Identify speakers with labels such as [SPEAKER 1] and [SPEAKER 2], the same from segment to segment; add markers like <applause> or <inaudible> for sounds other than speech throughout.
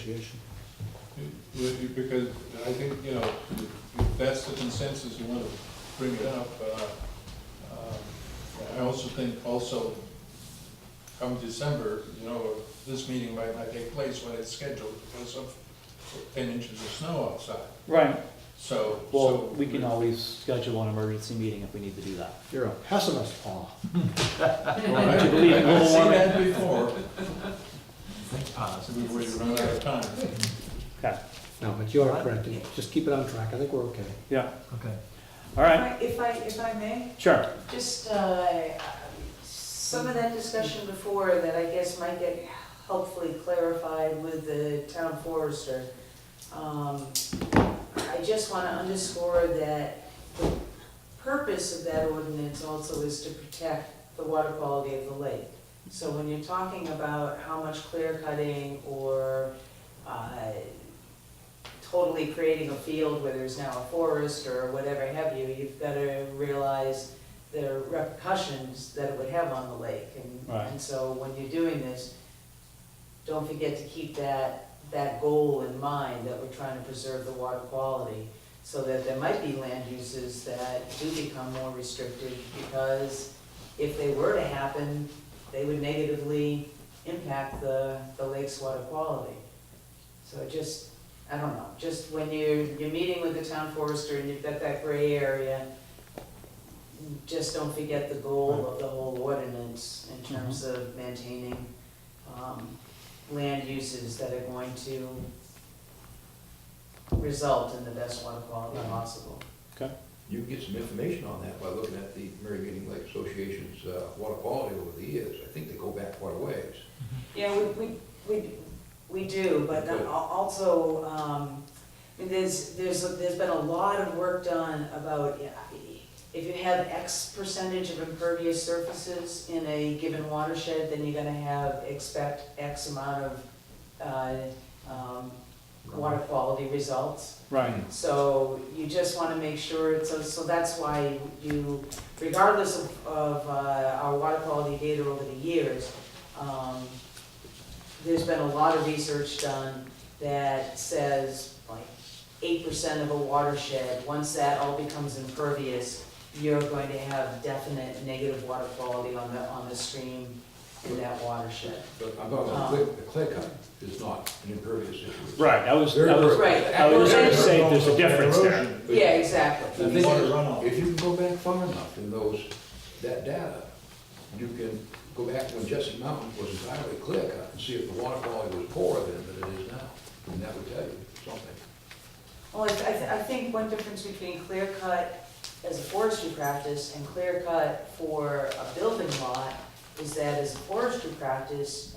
[SPEAKER 1] Association.
[SPEAKER 2] Would you- Because I think, you know, if that's the consensus, you want to bring it up. uh, uh, I also think also come December, you know, this meeting might not take place when it's scheduled because of ten inches of snow outside.
[SPEAKER 3] Right,
[SPEAKER 2] So.
[SPEAKER 3] well,
[SPEAKER 2] so-
[SPEAKER 3] we can
[SPEAKER 1] <laughs>
[SPEAKER 3] always schedule an emergency meeting if we need to do that.
[SPEAKER 1] You're a pessimist, Paul.
[SPEAKER 2] I've
[SPEAKER 3] you believe in global
[SPEAKER 2] seen <laughs>
[SPEAKER 3] warming?
[SPEAKER 2] that before.
[SPEAKER 4] Think
[SPEAKER 2] So
[SPEAKER 4] positive.
[SPEAKER 2] we would run out of time.
[SPEAKER 3] Okay,
[SPEAKER 1] No, but you are correct. Just keep it on track. I think we're okay.
[SPEAKER 3] yeah,
[SPEAKER 4] Okay.
[SPEAKER 3] all right,
[SPEAKER 5] If I, if I may,
[SPEAKER 3] sure.
[SPEAKER 5] just, uh, some of that discussion before that I guess might get helpfully clarified with the town forester. Um, I just want to underscore that the purpose of that ordinance also is to protect the water quality of the lake. So when you're talking about how much clear cutting or uh, totally creating a field where there's now a forest or whatever have you, you've got to realize the repercussions that it would have on the lake. And-
[SPEAKER 3] Right.
[SPEAKER 5] And so when you're doing this, don't forget to keep that, that goal in mind, that we're trying to preserve the water quality, so that there might be land uses that do become more restricted, because if they were to happen, they would negatively impact the, the lake's water quality. So just, I don't know, just when you're, you're meeting with the town forester and you've got that gray area, just don't forget the goal of the whole ordinance in terms of maintaining, um, land uses that are going to result in the best water quality possible.
[SPEAKER 6] You can get some information on that by looking at the Mary Meeting Lake Association's uh, water quality over the years. I think they go back quite a ways.
[SPEAKER 5] Yeah, we, we, we, we do, but then al- also, um, I mean, there's, there's, there's been a lot of work done about, yeah, if you have X percentage of impervious surfaces in a given watershed, then you're gonna have, expect X amount of, uh, um, water quality results.
[SPEAKER 3] Right,
[SPEAKER 5] So you just want to make sure, so, so that's why you, regardless of, of uh, our water quality data over the years, um, there's been a lot of research done that says like eight percent of a watershed, once that all becomes impervious, you're going to have definite negative water quality on the, on the stream in that watershed.
[SPEAKER 6] But I'm talking about clear- the clear cut is not an impervious issue.
[SPEAKER 3] right, I was,
[SPEAKER 6] Very
[SPEAKER 3] I was,
[SPEAKER 6] good.
[SPEAKER 5] Right.
[SPEAKER 3] I was gonna say there's a
[SPEAKER 2] Also,
[SPEAKER 3] difference there.
[SPEAKER 2] erosion.
[SPEAKER 5] Yeah, exactly.
[SPEAKER 6] The thing
[SPEAKER 2] Water
[SPEAKER 6] is,
[SPEAKER 2] runoff.
[SPEAKER 6] If you can go back far enough in those, that data, you can go back to when Jesse Mountain was entirely clear cut and see if the water quality was poorer then than it is now. And that would tell you something.
[SPEAKER 5] Well, I, I th- I think one difference between clear cut as a forestry practice and clear cut for a building lot is that as a forestry practice,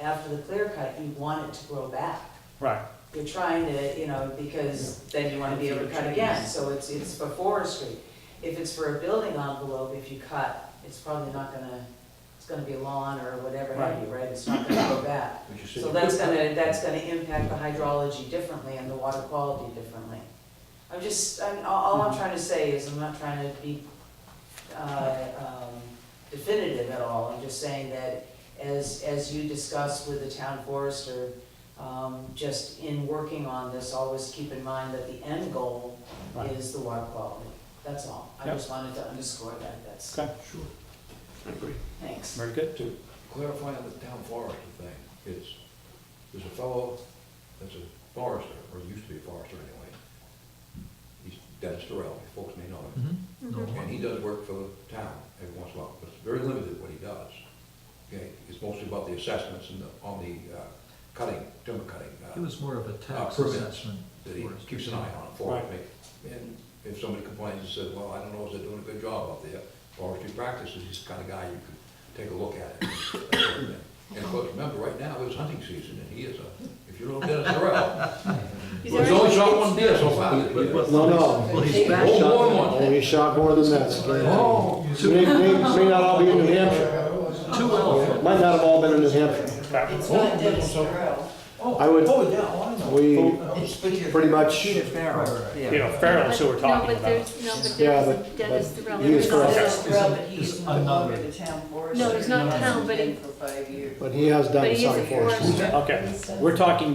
[SPEAKER 5] after the clear cut, you want it to grow back.
[SPEAKER 3] right,
[SPEAKER 5] You're trying to, you know, because then you wanna be able to cut again, so it's, it's for forestry. If it's for a building envelope, if you cut, it's probably not gonna, it's gonna be lawn or whatever have you, right? It's not gonna grow back.
[SPEAKER 6] But you said
[SPEAKER 5] So
[SPEAKER 6] you
[SPEAKER 5] that's
[SPEAKER 6] could-
[SPEAKER 5] gonna, that's gonna impact the hydrology differently and the water quality differently. I'm just, I'm, all all
[SPEAKER 3] Mm-hmm.
[SPEAKER 5] I'm trying to say is, I'm not trying to be, uh, um, definitive at all. I'm just saying that as, as you discuss with the town forester, um, just in working on this, always keep in mind that the end goal
[SPEAKER 3] Right.
[SPEAKER 5] is the water quality. That's all. I
[SPEAKER 3] Yep.
[SPEAKER 5] just wanted to underscore that, that's,
[SPEAKER 3] okay,
[SPEAKER 6] Sure.
[SPEAKER 1] I agree.
[SPEAKER 5] thanks.
[SPEAKER 3] very good.
[SPEAKER 6] To clarify on the town forester thing, it's, there's a fellow that's a forester, or used to be a forester anyway. He's Dennis Terrell, folks may know him. And he does work for the town every once in a while, but it's very limited what he does. Okay, it's mostly about the assessments and the, on the uh, cutting, timber cutting. uh,
[SPEAKER 4] It was more of a tax
[SPEAKER 6] Uh, permits
[SPEAKER 4] assessment.
[SPEAKER 6] that he
[SPEAKER 4] for us.
[SPEAKER 6] keeps an eye on for
[SPEAKER 3] Right.
[SPEAKER 6] me. And if somebody complains and says, well, I don't know if they're doing a good job out there, forestry practices, he's the kind of guy you could take a look at. it. And of course, remember, right now it's hunting season, and he is a, if you don't get a corral, he's only shot one deer so far.
[SPEAKER 1] No, no.
[SPEAKER 4] Well, he's back
[SPEAKER 6] Well,
[SPEAKER 4] shot.
[SPEAKER 6] one, one.
[SPEAKER 1] Oh, he shot more than that.
[SPEAKER 6] Oh,
[SPEAKER 1] May, may, may not all be in New Hampshire.
[SPEAKER 4] Two elephants.
[SPEAKER 1] Might not have all been in New Hampshire.
[SPEAKER 3] Okay.
[SPEAKER 5] It's not Dennis Thoreau.
[SPEAKER 1] I would,
[SPEAKER 2] Oh, yeah, oh, I know.
[SPEAKER 1] we, pretty much,
[SPEAKER 7] Peter Farrell,
[SPEAKER 4] Right, right, right.
[SPEAKER 7] yeah.
[SPEAKER 3] You know, Farrell's who we're talking
[SPEAKER 8] No, but
[SPEAKER 3] about.
[SPEAKER 8] there's, no, but
[SPEAKER 1] Yeah,
[SPEAKER 8] there's
[SPEAKER 1] but-
[SPEAKER 8] Dennis
[SPEAKER 1] but
[SPEAKER 8] Thorell.
[SPEAKER 1] he is correct.
[SPEAKER 5] Dennis Thorell, but
[SPEAKER 4] Is-
[SPEAKER 5] he's
[SPEAKER 4] is
[SPEAKER 5] no longer
[SPEAKER 4] another-
[SPEAKER 5] the town forester.
[SPEAKER 8] No, he's not
[SPEAKER 5] He
[SPEAKER 8] town, but
[SPEAKER 5] hasn't
[SPEAKER 8] he-
[SPEAKER 5] been for five years.
[SPEAKER 1] but he has
[SPEAKER 8] But
[SPEAKER 1] done
[SPEAKER 8] he is
[SPEAKER 1] some
[SPEAKER 8] a
[SPEAKER 1] forestry.
[SPEAKER 8] forester.
[SPEAKER 3] Okay, we're talking